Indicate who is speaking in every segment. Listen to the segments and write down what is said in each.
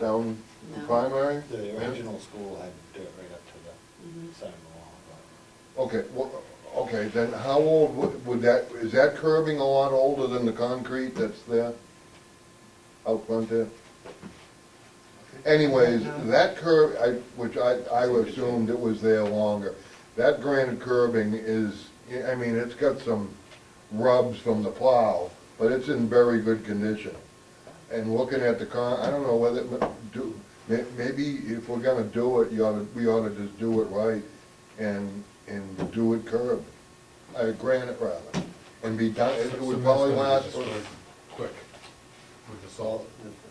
Speaker 1: down the
Speaker 2: No.
Speaker 1: primary?
Speaker 3: The
Speaker 1: Yeah.
Speaker 3: original school had to do it right up to the
Speaker 4: Mm-hmm.
Speaker 2: Mhm.
Speaker 3: side of the wall, but
Speaker 1: Okay, well, okay, then how old would- would that, is that curbing a lot older than the concrete that's there? Out front there? Anyways, that curb, I, which I, I assumed it was there longer. That granite curbing is, I mean, it's got some rubs from the plow, but it's in very good condition. And looking at the con, I don't know whether, it do, may- maybe if we're gonna do it, you oughta, we oughta just do it right and, and do it curb, uh, granite rather, and be done, it would probably last for,
Speaker 5: Quick, with the
Speaker 3: So
Speaker 5: salt.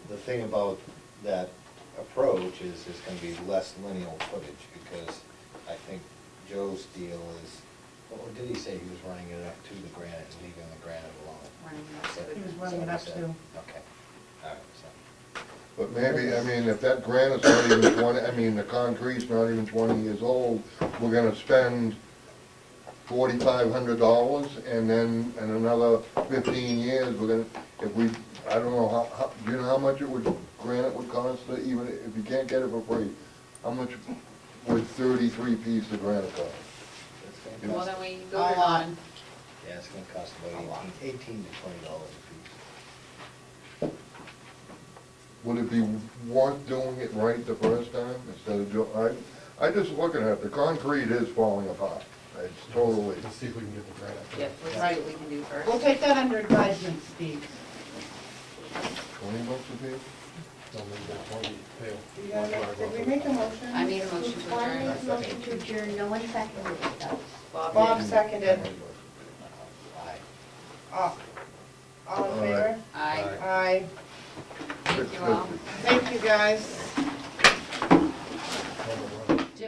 Speaker 3: the, the thing about that approach is there's gonna be less lineal footage, because I think Joe's deal is, what did he say, he was running it up to the granite, and leaving the granite alone?
Speaker 2: Running it up to the-
Speaker 4: He was running it up to.
Speaker 3: Okay, all right, so,
Speaker 1: but maybe, I mean, if that granite's not even twenty, I mean, the concrete's not even twenty years old, we're gonna spend forty-five hundred dollars, and then in another fifteen years, we're gonna, if we, I don't know, how, how, do you know how much it would, granite would cost, to even if you can't get it for free? How much would thirty-three pieces of granite cost?
Speaker 3: it's gonna
Speaker 1: Yeah.
Speaker 2: Well,
Speaker 3: cost,
Speaker 2: then we go
Speaker 4: I- I-
Speaker 2: on,
Speaker 3: yeah, it's gonna cost about eighteen, eighteen to twenty dollars a piece.
Speaker 1: Would it be worth doing it right the first time instead of doing, I, I just looking at it, the concrete is falling apart. It's totally,
Speaker 5: Let's see if we can get the grant.
Speaker 2: yep, let's see what we can do
Speaker 4: We'll
Speaker 2: first.
Speaker 4: take that under advisement, Steve.
Speaker 1: twenty bucks a piece?
Speaker 5: Don't leave that one, fail.
Speaker 4: You gotta make- Did we make a motion?
Speaker 2: I made a motion to
Speaker 6: I
Speaker 2: adjourn.
Speaker 6: make a motion to adjourn, no one seconded it though.
Speaker 2: Bob
Speaker 4: Bob
Speaker 2: did.
Speaker 4: seconded.
Speaker 3: Aye.
Speaker 4: All all in
Speaker 1: All right.
Speaker 4: favor?
Speaker 2: Aye.
Speaker 4: Aye.
Speaker 2: Thank you all.
Speaker 4: Thank you, guys.